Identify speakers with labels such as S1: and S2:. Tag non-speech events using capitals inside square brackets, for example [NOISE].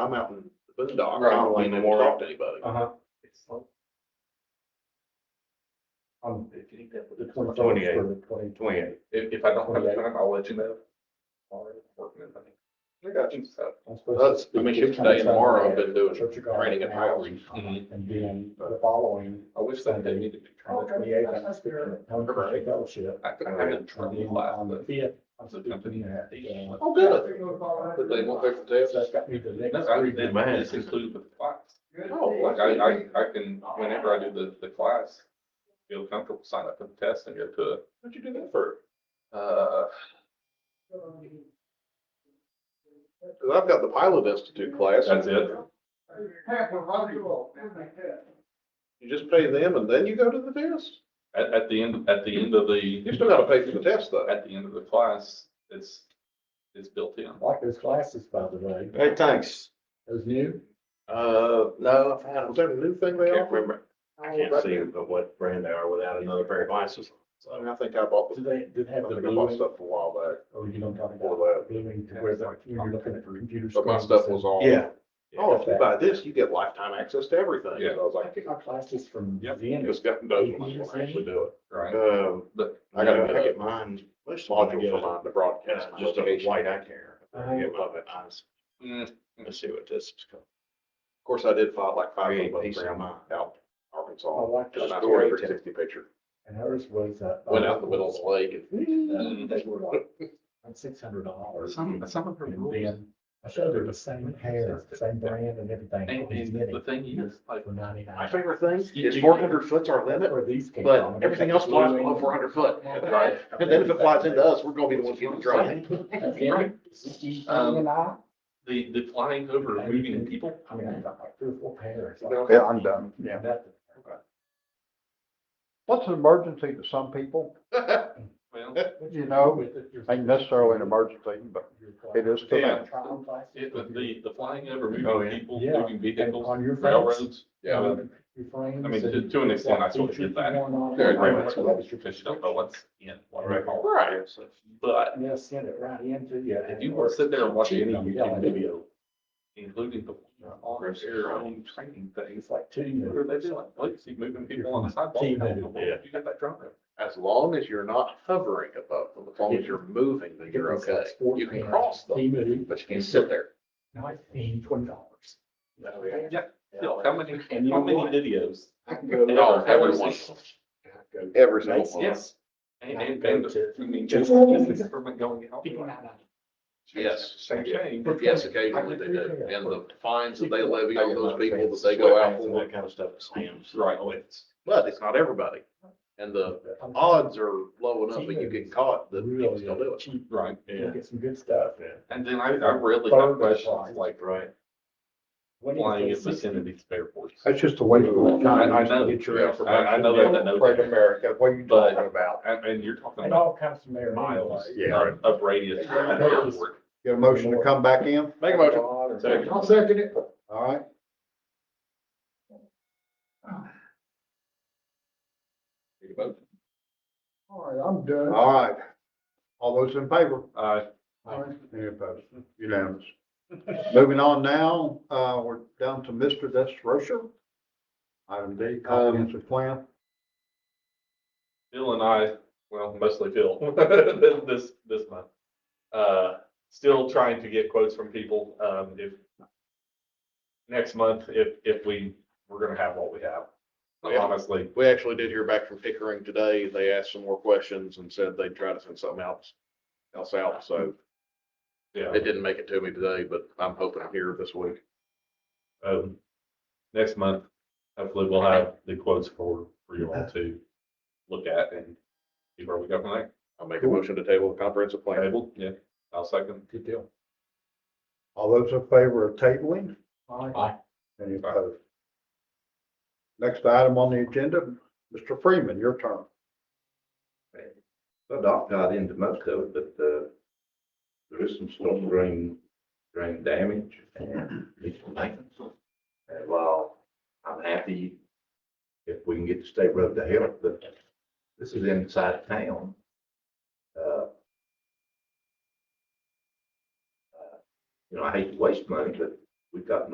S1: I'm out in the boondocks, I
S2: Right,
S1: don't want to
S2: in the war.
S1: talk to anybody.
S2: Uh huh.
S3: Uh-huh. On Um, the
S2: Twenty-eight.
S3: twenty-eighth or the twenty.
S2: Twenty-eight. If, if I don't have time, I'll let you know. Alright, working it, honey. I got you. so.
S3: I'm supposed to
S1: That's, I
S3: speak
S1: mean,
S3: this
S1: shoot, today and
S3: coming
S1: tomorrow, I've
S3: Sunday
S1: been doing
S3: at Church of God
S1: training and outreach.
S2: Mm-hmm.
S3: And then the following, uh,
S2: I wish that they needed to.
S1: Oh,
S3: on the twenty-eighth, I'm speaking at Home Christian Fellowship.
S2: I think I haven't
S3: And
S2: turned
S3: then
S2: in class,
S3: on the
S2: but.
S3: fifth, I'm
S2: That's a company.
S3: speaking at. uh,
S1: Oh, good. But they won't take the test.
S3: So that's got me the next
S2: No, I,
S3: three.
S2: that
S4: Man.
S2: is included with the class.
S1: Oh,
S2: Like I, I, I can, whenever I do the, the class, feel comfortable, sign up for the test and go to it.
S1: What'd you do that for?
S2: Uh,
S1: Cause I've got the pilot institute class.
S2: that's it.
S1: You just pay them and then you go to the test.
S2: At, at the end, at the end of the,
S1: You still gotta pay for the test though.
S2: at the end of the class, it's, it's built in.
S3: Like those classes, by the way,
S4: Hey, thanks.
S3: those new,
S4: Uh, no, I've had
S1: Was
S4: them.
S1: that a new thing
S4: I
S1: they
S4: can't
S1: offered?
S4: remember. I can't see what brand they are without another pair of glasses.
S1: I mean, I think I bought,
S3: do
S1: the-
S3: they, did they
S1: I
S3: have the
S1: think I bought
S3: blueing,
S1: stuff a while back
S3: or you don't talk
S1: before
S3: about
S1: that,
S3: blueing to where they're, you're looking at computer.
S1: but my
S3: screens
S1: stuff
S3: and-
S1: was all.
S4: Yeah.
S1: Oh, if you buy this, you get lifetime access to everything.
S2: Yeah.
S1: So I was
S3: I
S1: like,
S3: took my classes from
S2: Yep.
S3: Zen.
S1: this guy knows when I can actually do it.
S2: Right.
S1: Um,
S2: But
S1: I gotta get
S4: get mine.
S1: Which module for mine to broadcast my
S4: Just a
S1: location.
S4: white eye care.
S3: Uh-huh.
S4: Get my eyes.
S2: mm,
S4: Let's see what this is called.
S1: Of course, I did file like five
S4: Create
S1: of them
S4: peace in
S1: grandma out
S3: I
S1: Arkansas.
S5: Oh,
S3: liked
S1: Got a
S3: it.
S1: nice 360 picture. Mm.
S3: And hers was. uh,
S1: Went out in the middle of the lake and.
S3: uh, They were like, six hundred dollars.
S2: some, some of them
S3: And
S2: rules.
S3: then I showed her the same hair, same brand and everything.
S2: And, and the thing is, like,
S3: For ninety
S1: My
S3: nine.
S1: favorite thing
S2: You-
S1: is
S2: you-
S1: four hundred foot's our limit,
S3: Where these came
S1: but
S3: from.
S1: everything else flies below four hundred foot.
S2: Right.
S1: And then if it flies into us, we're gonna be the ones getting drowned.
S3: Again, she
S1: Um,
S3: and I,
S2: the, the flying over moving people,
S3: I mean, I got like three or four pairs.
S5: Yeah, I'm done, yeah.
S3: Nothing.
S5: What's an emergency to some people?
S2: well,
S5: You know, ain't necessarily an emergency, but it is to
S2: Yeah.
S5: them.
S3: Trial classes.
S2: it, the, the- the flying over
S4: Oh,
S2: moving
S4: yeah.
S2: people,
S3: Yeah.
S2: moving
S3: And
S2: vehicles,
S3: on your friends.
S2: railroads.
S1: Yeah.
S2: um, I mean, to, to an extent, I sort of get that.
S1: Yeah,
S2: Because you don't know what's in, what
S4: Right.
S2: are all.
S1: Right.
S2: But
S3: And they'll send it right into you.
S2: if you want to sit there and watch any YouTube
S3: video,
S2: video, including the on air own training things,
S3: It's like two
S2: what are
S3: minutes.
S2: they doing? Like, see moving people on the sidewalk. You
S4: Yeah.
S2: got that drone there.
S1: As long as you're not hovering above them, as long as you're moving, then you're okay. You can cross them,
S3: Team it,
S1: but you can't sit there.
S3: nineteen, twenty dollars.
S2: Yeah. Still, how many, how many videos?
S3: I can go.
S2: And
S1: No,
S2: I'll have
S1: every
S2: a
S1: one.
S2: six-
S1: Every single
S3: Makes
S1: one.
S2: Yes. And, and, and, the- I mean, just, just the government going out.
S1: Yes.
S2: Same thing.
S1: Yes, occasionally they do. And the fines that they levy on those people that they go out for,
S4: That kind of stuff at Sam's.
S2: Right.
S4: Oh, it's-
S1: but it's not everybody. And the odds are low enough that you get caught that people still do it.
S2: Right.
S3: You
S4: Yeah.
S3: get some good stuff.
S2: And then I, I rarely have questions like
S4: Right.
S3: What do you
S2: flying in
S3: think?
S2: vicinity of airports. I,
S5: That's just a waste of time.
S2: I know,
S5: Get your
S1: Yeah.
S2: I I know that, I know
S5: Great
S2: that.
S5: America, what are you
S2: But-
S5: talking about?
S2: And, and you're talking
S3: It
S2: about
S3: all comes from there.
S2: miles
S3: anyway.
S4: Yeah.
S2: of- of radius around an airport.
S5: Get a motion to come back in?
S1: Make a motion.
S2: Second.
S5: I'll second it. All right. All right, I'm done. All right. All those in favor?
S2: Uh,
S5: Any opposed? Unanimous. Moving on now, uh, we're down to Mr. Des Rocher. Item D,
S2: Um,
S5: comprehensive plan.
S2: Phil and I, well, mostly Phil,
S5: [LAUGHS]
S2: this- this, this month. Uh, still trying to get quotes from people, um, if next month, if, if we, we're gonna have what we have.
S1: Yeah.
S2: Honestly,
S1: We actually did hear back from Pickering today. They asked some more questions and said they'd try to send something else, else out. So
S2: yeah.
S1: it didn't make it to me today, but I'm hoping I'm here this week.
S2: um, next month, hopefully we'll have the quotes for, for you all to look at and see where we go from there.
S1: I'll make a motion to table the comprehensive plan.
S2: Table, yeah, I'll second.
S3: Good deal.
S5: All those in favor of tabling?
S3: Aye.
S5: Any opposed? Next item on the agenda, Mr. Freeman, your turn.
S4: Well, Doc got into most of it, but, uh, there is some storm drain, drain damage and leaks from maintenance. And while I'm happy if we can get the state road to help, but this is inside town. Uh, uh, You know, I hate to waste money, but